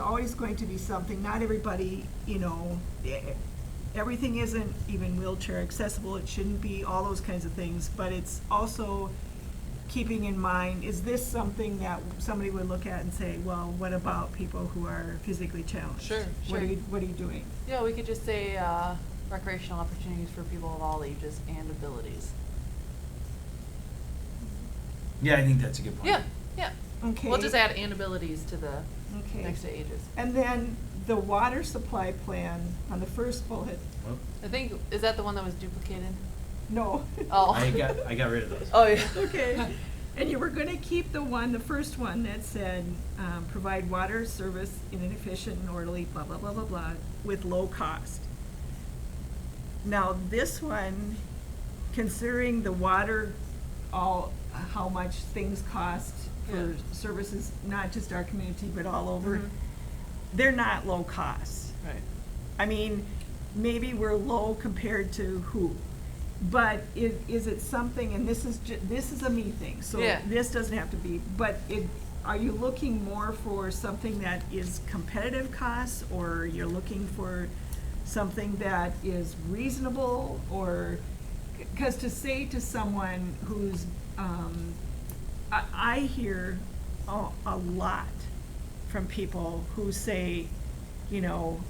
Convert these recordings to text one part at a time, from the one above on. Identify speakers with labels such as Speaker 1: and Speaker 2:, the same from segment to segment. Speaker 1: always going to be something, not everybody, you know, e- everything isn't even wheelchair accessible, it shouldn't be, all those kinds of things, but it's also keeping in mind, is this something that somebody would look at and say, well, what about people who are physically challenged?
Speaker 2: Sure,
Speaker 1: What are
Speaker 2: sure.
Speaker 1: you, what are you doing?
Speaker 2: Yeah, we could just say uh, recreational opportunities for people of all ages and abilities.
Speaker 3: Yeah, I think that's a good point.
Speaker 2: Yeah, yeah.
Speaker 1: Okay.
Speaker 2: We'll just add and abilities to the
Speaker 1: Okay.
Speaker 2: next to ages.
Speaker 1: And then the water supply plan on the first bullet,
Speaker 3: Well,
Speaker 2: I think, is that the one that was duplicated?
Speaker 1: no.
Speaker 2: Oh.
Speaker 3: I got, I got rid of those.
Speaker 2: Oh, yeah.
Speaker 1: Okay, and you were gonna keep the one, the first one that said, um, provide water service in an efficient and orderly, blah, blah, blah, blah, blah, with low cost. Now, this one, considering the water, all, how much things cost for
Speaker 2: Yeah.
Speaker 1: services, not just our community, but all over,
Speaker 2: Mhm.
Speaker 1: they're not low cost.
Speaker 2: Right.
Speaker 1: I mean, maybe we're low compared to who, but is, is it something, and this is ju, this is a me thing, so
Speaker 2: Yeah.
Speaker 1: this doesn't have to be, but it, are you looking more for something that is competitive costs, or you're looking for something that is reasonable, or, cause to say to someone who's, um, I, I hear a, a lot from people who say, you know,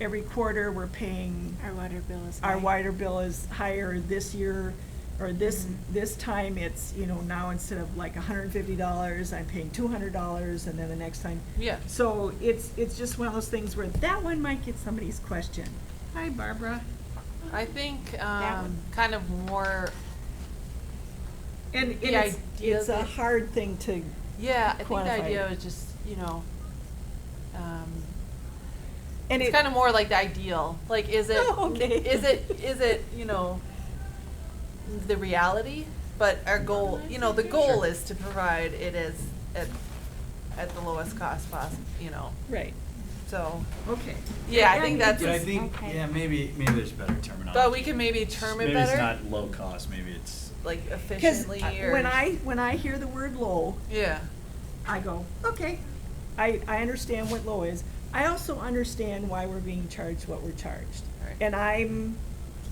Speaker 1: every quarter, we're paying,
Speaker 4: Our water bill is
Speaker 1: our
Speaker 4: high.
Speaker 1: water bill is higher this year, or this,
Speaker 4: Mhm.
Speaker 1: this time it's, you know, now instead of like hundred and fifty dollars, I'm paying two hundred dollars, and then the next time.
Speaker 2: Yeah.
Speaker 1: So it's, it's just one of those things where that one might get somebody's question. Hi, Barbara.
Speaker 2: I think
Speaker 4: That
Speaker 2: um,
Speaker 4: one.
Speaker 2: kind of more,
Speaker 1: And and
Speaker 2: The
Speaker 1: it's,
Speaker 2: idea
Speaker 1: it's a
Speaker 2: that-
Speaker 1: hard thing to,
Speaker 2: yeah, I think the
Speaker 1: Quantify
Speaker 2: idea
Speaker 1: it.
Speaker 2: was just, you know, um,
Speaker 1: and
Speaker 2: it's
Speaker 1: it,
Speaker 2: kind of more like the ideal. Like, is it,
Speaker 1: Oh, okay.
Speaker 2: is it, is it, you know, the reality? But our goal, you know, the goal
Speaker 3: Sure.
Speaker 2: is to provide it as, at, at the lowest cost possible, you know,
Speaker 1: right,
Speaker 2: so.
Speaker 1: okay.
Speaker 2: Yeah, I
Speaker 1: And
Speaker 2: think
Speaker 1: it
Speaker 2: that's-
Speaker 3: But I
Speaker 1: just-
Speaker 3: think,
Speaker 4: okay.
Speaker 3: yeah, maybe, maybe there's better terminology.
Speaker 2: But we can maybe term it
Speaker 3: Maybe it's
Speaker 2: better.
Speaker 3: not low cost, maybe it's,
Speaker 2: Like
Speaker 1: Cause
Speaker 2: efficiently
Speaker 1: I-
Speaker 2: or.
Speaker 1: when I, when I hear the word low,
Speaker 2: Yeah,
Speaker 1: I go, okay, I, I understand what low is. I also understand why we're being charged what we're charged.
Speaker 2: Right.
Speaker 1: And I'm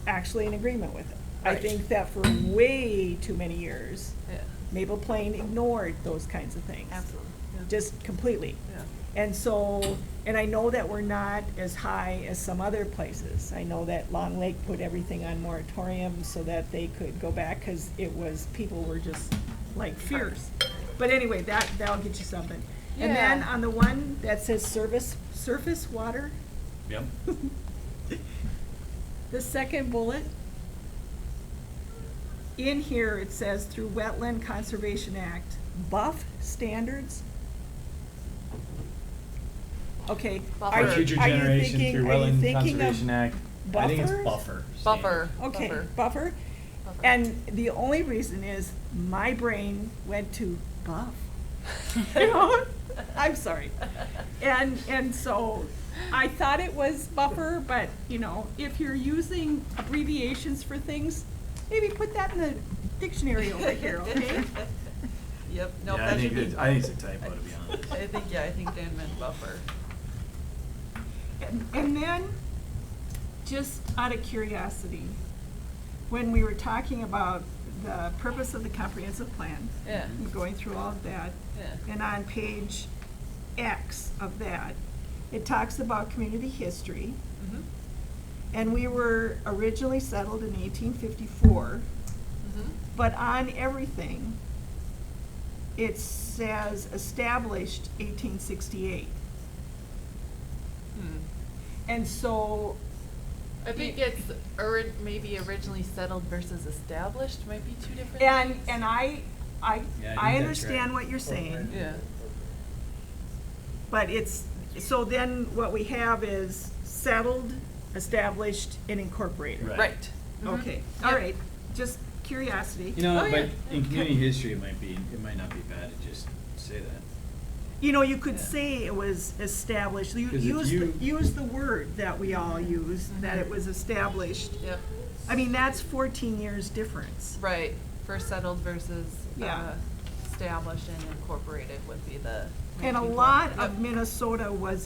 Speaker 1: actually in agreement with it. I
Speaker 2: Right.
Speaker 1: think that for way too many years,
Speaker 2: yeah,
Speaker 1: Maple Plain ignored those kinds of things.
Speaker 2: absolutely, yeah.
Speaker 1: Just completely.
Speaker 2: Yeah.
Speaker 1: And so, and I know that we're not as high as some other places. I know that Long Lake put everything on moratorium so that they could go back, because it was, people were just like fierce. But anyway, that, that'll get you something. And then
Speaker 2: Yeah.
Speaker 1: on the one that says service, surface water,
Speaker 3: yep.
Speaker 1: the second bullet, in here it says through Wetland Conservation Act, buff standards. Okay.
Speaker 2: Buffer.
Speaker 1: are
Speaker 3: For
Speaker 1: you-
Speaker 3: future
Speaker 1: are you
Speaker 3: generation
Speaker 1: thinking-
Speaker 3: through
Speaker 1: are you
Speaker 3: Wetland
Speaker 1: thinking of
Speaker 3: Conservation Act, I think it's
Speaker 1: buffers?
Speaker 3: buffer. standard.
Speaker 2: Buffer.
Speaker 1: Okay,
Speaker 2: Buffer.
Speaker 1: buffer.
Speaker 2: Buffer.
Speaker 1: And the only reason is my brain went to buff. You know? I'm sorry. And, and so I thought it was buffer, but, you know, if you're using abbreviations for things, maybe put that in the dictionary over here, okay?
Speaker 2: Yep, nope,
Speaker 3: Yeah, I
Speaker 2: that
Speaker 3: think
Speaker 2: should be.
Speaker 3: it's, I think it's a typo, to be honest.
Speaker 2: I think, yeah, I think Dan meant buffer.
Speaker 1: And- And then, just out of curiosity, when we were talking about the purpose of the comprehensive plan,
Speaker 2: Yeah,
Speaker 1: and going through all of that,
Speaker 2: yeah,
Speaker 1: and on page X of that, it talks about community history.
Speaker 2: mhm,
Speaker 1: And we were originally settled in eighteen fifty-four,
Speaker 2: mhm,
Speaker 1: but on everything, it says established eighteen sixty-eight.
Speaker 2: hmm.
Speaker 1: Mm-hmm. And so,
Speaker 2: I think it's orid, maybe originally settled versus established might be two different
Speaker 1: and,
Speaker 2: things.
Speaker 1: and I, I,
Speaker 3: Yeah, I think that's
Speaker 1: I
Speaker 3: right.
Speaker 1: understand what you're saying.
Speaker 2: Yeah,
Speaker 1: But it's, so then what we have is settled, established, and incorporated.
Speaker 3: Right.
Speaker 2: right. mhm.
Speaker 1: Okay, all
Speaker 2: Yep.
Speaker 1: right, just curiosity.
Speaker 3: You know,
Speaker 2: Oh,
Speaker 3: but
Speaker 2: yeah.
Speaker 3: in community history, it might be, it might not be bad to just say that.
Speaker 1: You know, you could
Speaker 2: Yeah.
Speaker 1: say it was established, you
Speaker 3: 'Cause if
Speaker 1: use,
Speaker 3: you-
Speaker 1: the- use the word that we all use,
Speaker 2: Mm-hmm.
Speaker 1: that it was established.
Speaker 2: Yep,
Speaker 1: I mean, that's fourteen years difference.
Speaker 2: right, first settled versus,
Speaker 1: Yeah.
Speaker 2: uh, established and incorporated would be the.
Speaker 1: And a
Speaker 2: 1940.
Speaker 1: lot
Speaker 2: Yep.
Speaker 1: of Minnesota was